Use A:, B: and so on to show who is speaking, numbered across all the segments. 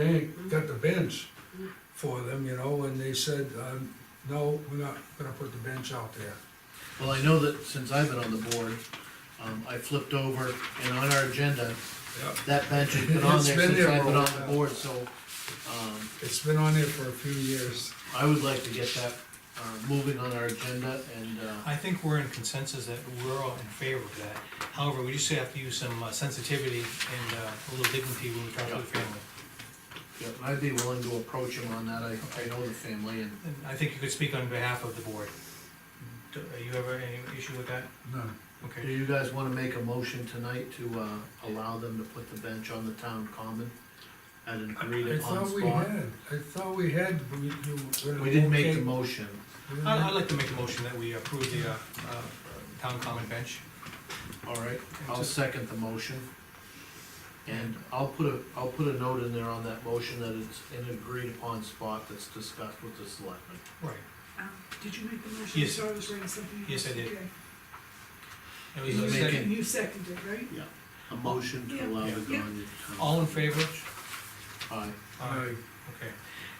A: Bank got the bench for them, you know, and they said, um, no, we're not gonna put the bench out there.
B: Well, I know that since I've been on the board, um, I flipped over and on our agenda,
A: Yep.
B: that bench has been on
A: It's
B: there
A: been
B: since
A: there
B: I've
A: for a
B: been on the
A: while.
B: board, so, um,
A: It's been on there for a few years.
B: I would like to get that, uh, moving on our agenda and, uh,
C: I think we're in consensus that we're all in favor of that. However, we just have to use some uh, sensitivity and uh, a little dignity when we talk to the family.
B: yeah, I'd be willing to approach him on that, I, I know the family and,
C: And I think you could speak on behalf of the board. Do uh, you have any issue with that?
A: No,
B: do
C: Okay.
B: you guys wanna make a motion tonight to, uh, allow them to put the bench on the town common? At an agreed
A: I
B: upon
A: thought we
B: spot?
A: had, I thought we had, but we, you. were-
B: We didn't make the
A: okay.
B: motion,
A: We didn't
C: I- I'd
A: make-
C: like to make a motion that we approve the uh, uh, town common bench.
B: alright, I'll
C: Just-
B: second the motion. And I'll put a, I'll put a note in there on that motion that it's an agreed upon spot that's discussed with the selectmen.
C: Right.
D: Um, Did you make the motion?
C: Yes.
D: Sorry, I was writing something. else.
C: Yes, I did.
D: Okay.
C: And we
B: Is
D: You
B: it
C: said-
B: making-
D: second- You seconded, right?
B: A motion to allow the
D: Yeah.
B: Gagne to.
C: All in favor?
B: Aye.
C: Aye. Okay.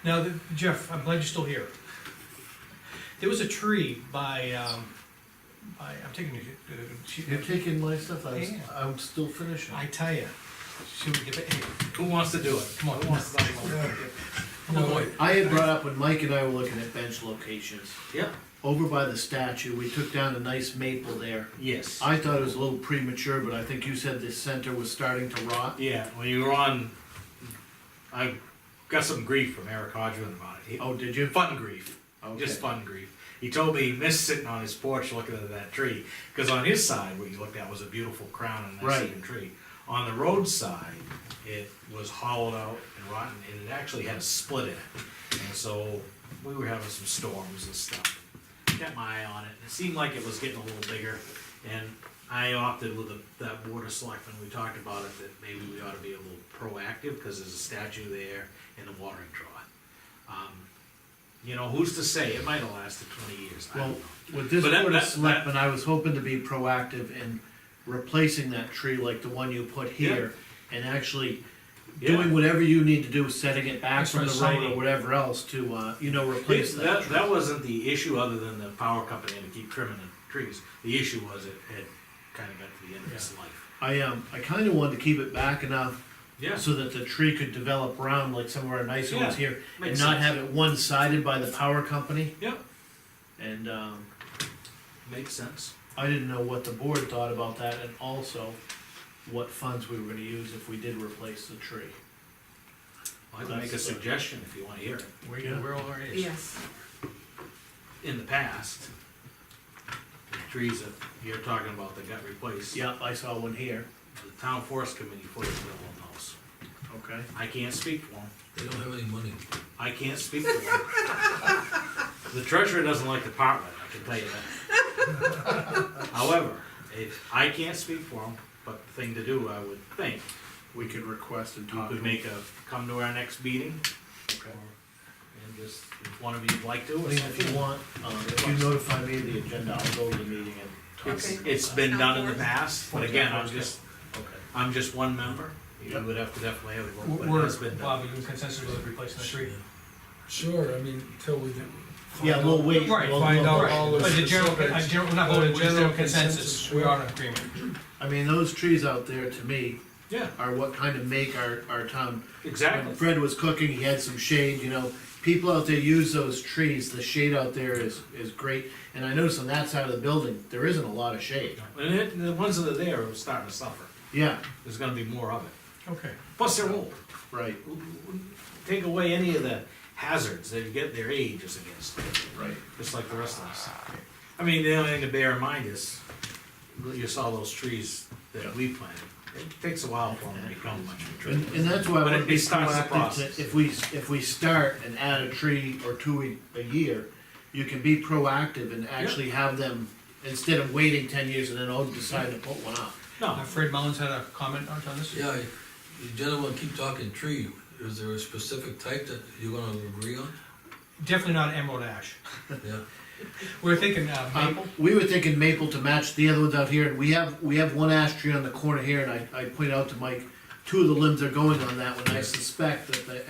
C: Now, the- Jeff, I'm glad you're still here. There was a tree by, um, by, I'm taking, uh,
B: You're taking my stuff, I was,
C: Yeah.
B: I'm still finishing.
C: I tell ya, should we give it, hey,
E: Who wants to do it?
C: Come on.
E: Who wants to sign one?
A: Yeah.
C: come on, boy.
B: I had brought up when Mike and I were looking at bench locations,
E: Yeah.
B: over by the statue, we took down a nice maple there.
E: Yes.
B: I thought it was a little premature, but I think you said the center was starting to rot.
E: Yeah, when you were on, I got some grief from Eric Hodgman about it. He-
B: Oh, did you?
E: Fun grief, just
B: Okay.
E: fun grief. He told me he missed sitting on his porch looking at that tree, because on his side, what you looked at was a beautiful crown and nice
B: Right.
E: looking tree. On the roadside, it was hollowed out and rotten, and it actually had a split in it. And so, we were having some storms and stuff. Kept my eye on it, and it seemed like it was getting a little bigger, and I opted with the, that board of selectmen, we talked about it, that maybe we ought to be a little proactive, because there's a statue there and a watering trough. Um, You know, who's to say, it might have lasted twenty years, I don't
B: Well,
E: know.
B: with this
E: But that-
B: board of
E: that- that-
B: selectmen, I was hoping to be proactive in replacing that tree like the one you put here. And actually doing
E: Yeah.
B: whatever you need to do, setting it back
C: That's
B: from
C: what
B: the
C: I'm
B: road or
C: saying.
B: whatever else to, uh, you know, replace
E: It-
B: that
E: That,
B: tree.
E: that wasn't the issue, other than the power company had to keep trimming the trees. The issue was it had kinda got to the end of its life.
B: I, um, I kinda wanted to keep it back enough
E: Yeah.
B: so that the tree could develop round like some of our nicer ones
E: Yeah,
B: here. And
E: makes
B: not
E: sense.
B: have it one-sided by the power company.
E: Yep,
B: And, um,
E: makes sense.
B: I didn't know what the board thought about that and also what funds we were gonna use if we did replace the tree.
E: I can make a
B: That's-
E: suggestion if you wanna hear it.
C: Where,
B: Yeah.
C: where all it is.
D: Yes.
E: In the past, the trees that you're talking about that got replaced.
B: Yep, I saw one here.
E: The town forest committee put a bill on those.
B: Okay.
E: I can't speak for them.
F: They don't have any money.
E: I can't speak for them. The treasurer doesn't like the part with it, I can tell you that. However, if, I can't speak for them, but the thing to do, I would think,
B: We could request and
E: you
B: talk to
E: could
B: them.
E: make a, come to our next meeting, or, and just, if one of you'd like to,
B: I
E: or
B: mean, if you
E: something.
B: want, um, if you notify me of the agenda, I'll go to the meeting and talk.
E: It's,
B: to
D: Okay.
E: it's been done in the past, but again, I'm just,
B: Okay.
E: I'm just one member. You
B: Yep.
E: would have to definitely have a vote, but it
C: We're,
E: has been done.
C: Bob, you in consensus with replacing the tree?
A: Sure, I mean, till we. get-
B: Yeah, we'll wait.
C: Right,
B: we'll-
A: find
B: we'll-
A: out
C: Right,
A: all
C: But the general,
A: specifics.
C: uh, general, we're not
A: Well, the
C: voting, we're just
A: general
C: doing consensus,
A: consensus,
C: we are
A: sure.
C: in agreement.
B: I mean, those trees out there, to me,
E: Yeah,
B: are what kind of make our, our town. When
E: exactly.
B: Fred was cooking, he had some shade, you know, people out there use those trees, the shade out there is, is great. And I noticed on that side of the building, there isn't a lot of shade.
E: And it, the ones that are there are starting to suffer.
B: Yeah,
E: There's gonna be more of it.
C: Okay.
E: Plus, they're old.
B: right,
E: take away any of the hazards that you get their age is against,
B: right.
E: just like the rest of us. I mean, the only thing to bear in mind is, you saw those trees
B: Yeah.
E: that we planted. It takes a while for them to become much of a tree.
B: And, and that's why I
E: But
B: wanna
E: it-
B: be
E: it starts the
B: proactive,
E: process.
B: to- if we, if we start and add a tree or two a, a year, you can be proactive and actually have them, instead of waiting ten years and then, oh, decide to put one up.
E: No,
C: Uh, Fred Mullins had a comment on on this?
F: Yeah, the gentleman keep talking tree. Is there a specific type that you're gonna agree on?
C: Definitely not emerald ash.
F: Yeah.
C: We're thinking uh,
B: Um,
C: maple.
B: we were thinking maple to match the other ones out here, and we have, we have one ash tree on the corner here, and I, I pointed out to Mike, two of the limbs are going on that one, I suspect that the